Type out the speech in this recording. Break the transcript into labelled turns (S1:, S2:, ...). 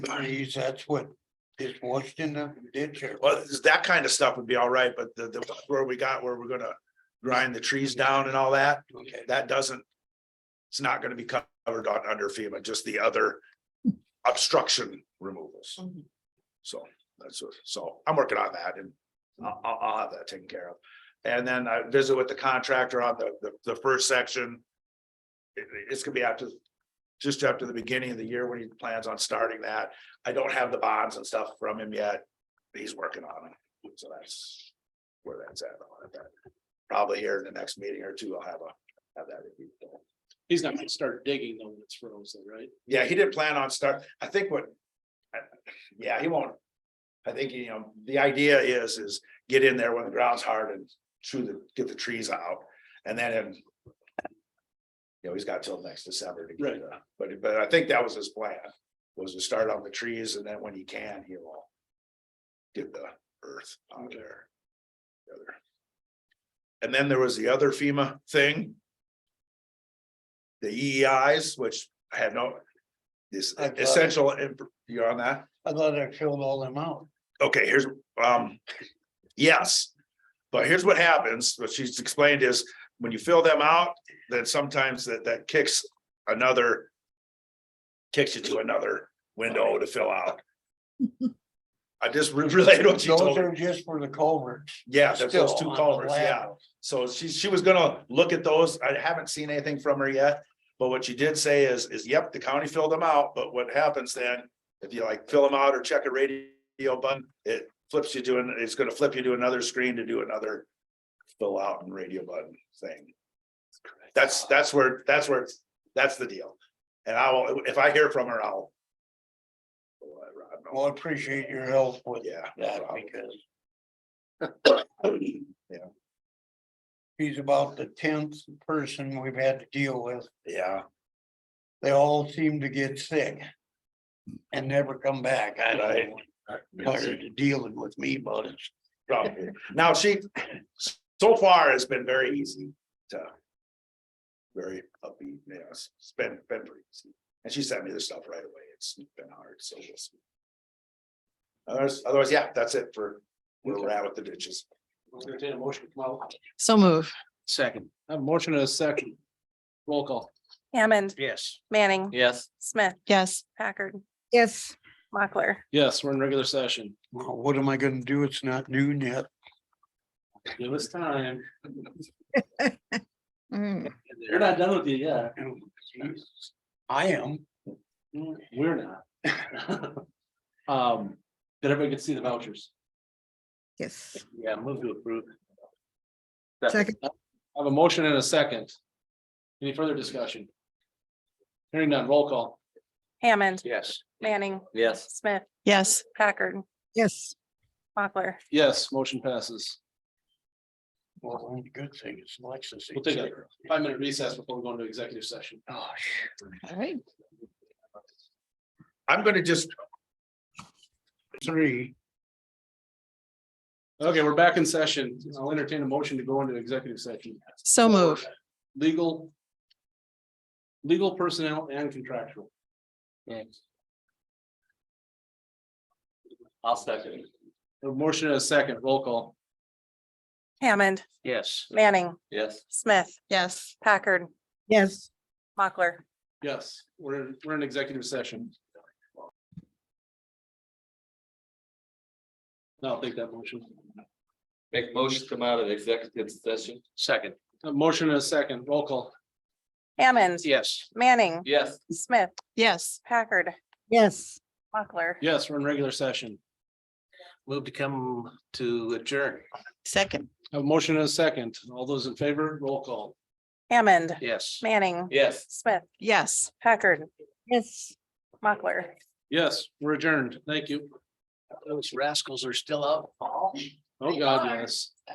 S1: Please, that's what is washed in the ditch or
S2: Well, this- that kind of stuff would be all right, but the, the, where we got, where we're gonna grind the trees down and all that,
S1: Okay.
S2: that doesn't. It's not gonna be covered on under FEMA, just the other obstruction removals.
S3: Mhm.
S2: So that's, what- so I'm working on that and I'll, I'll, I'll have that taken care of. And then I visit with the contractor on the, the, the first section. It- it's gonna be after, just after the beginning of the year when he plans on starting that. I don't have the bonds and stuff from him yet. He's working on it, so that's where that's at. on it. Probably here in the next meeting or two, I'll have a, have that reviewed.
S4: He's not gonna start digging though when it's frozen, right?
S2: Yeah, he didn't plan on start, I think what. I- Yeah, he won't. I think, you know, the idea is, is get in there when the ground's hard and chew the, get the trees out and then. in- You know, he's got till next December to get
S4: Right.
S2: it, up. but, but I think that was his plan, was to start on the trees and then when he can, he will. Get the earth out of there. The other. And then there was the other FEMA thing. The EEIs, which I have no. This
S1: I thought-
S2: essential, imp- you're on that?
S1: I thought I filled all them out.
S2: okay, here's, um, yes. But here's what happens, what she's explained is, when you fill them out, then sometimes that, that kicks another. Kicks you to another window to fill out. I just re- relayed what she
S1: Those
S2: told me,
S1: are just for the culverts.
S2: yeah, that's those
S1: still
S2: two
S1: on the
S2: culverts, yeah.
S1: lateral.
S2: So she, she was gonna look at those. I haven't seen anything from her yet. But what she did say is, is yep, the county filled them out, but what happens then? If you like fill them out or check a radio button, it flips you to, an it's gonna flip you to another screen to do another. Fill out and radio button thing. That's, that's where, that's where, it's- that's the deal. And I will, if I hear from her, I'll. I'll let Rod know.
S1: Well, I appreciate your help with
S2: Yeah. no
S1: that
S2: problem.
S1: because
S2: Yeah,
S1: he's about the tenth person we've had to deal with.
S2: yeah,
S1: They all seem to get sick. And never come back. I
S2: Right.
S1: don't want tired of dealing with me about it.
S2: probably. Now, she, so far, it's been very easy to. Very upbeat, you know, it's it's been, been pretty easy, and she sent me the stuff right away, it's been hard, so we'll see. Otherwise, otherwise, yeah, that's it for where we're at with the ditches.
S4: We'll entertain a motion to come out.
S3: So move.
S4: Second. I have a motion and a second. Roll call.
S5: Hammond,
S4: Yes.
S5: Manning,
S4: Yes.
S5: Smith,
S3: Yes.
S5: Packard,
S6: Yes,
S5: Mochler.
S4: Yes, we're in regular session.
S1: Well, what am I gonna do? It's not noon yet.
S4: Give us time.
S6: Mm,
S4: You're not done with it yet.
S1: I am.
S4: We're not. Um, did everybody get to see the vouchers?
S6: yes.
S4: Yeah, move to approve.
S6: Second.
S4: I have a motion and a second. Any further discussion? Hearing none, roll call.
S5: Hammond,
S4: Yes.
S5: Manning,
S4: Yes.
S5: Smith,
S3: Yes.
S5: Packard,
S6: Yes,
S5: Mochler.
S4: Yes, motion passes.
S1: Well, only good thing is Lexus.
S4: We'll take a five minute recess before we go into executive session.
S1: Oh,
S3: All right.
S2: I'm gonna just,
S1: three.
S4: Okay, we're back in session. I'll entertain a motion to go into executive session.
S3: So move.
S4: Legal. Legal personnel and contractual. I'll second. A motion and a second, roll call.
S5: Hammond,
S4: Yes.
S5: Manning,
S4: Yes.
S5: Smith,
S3: Yes.
S5: Packard,
S6: yes.
S5: Mochler.
S4: Yes, we're, in- we're in executive session. No, I'll take that motion.
S7: Make motion to come out of executive session?
S4: Second. A motion and a second, roll call.
S5: Hammond,
S4: Yes.
S5: Manning,
S7: Yes.
S5: Smith,
S3: Yes.
S5: Packard,
S6: Yes.
S5: Mochler.
S4: Yes, we're in regular session.
S7: Move to come to adjourn.
S3: Second.
S4: A motion and a second. All those in favor, roll call.
S5: Hammond,
S4: Yes.
S5: Manning,
S7: Yes.
S5: Smith,
S3: Yes.
S5: Packard,
S6: Yes.
S5: Mochler.
S4: Yes, we're adjourned. Thank you.
S7: Those rascals are still out.
S4: Oh, God, yes.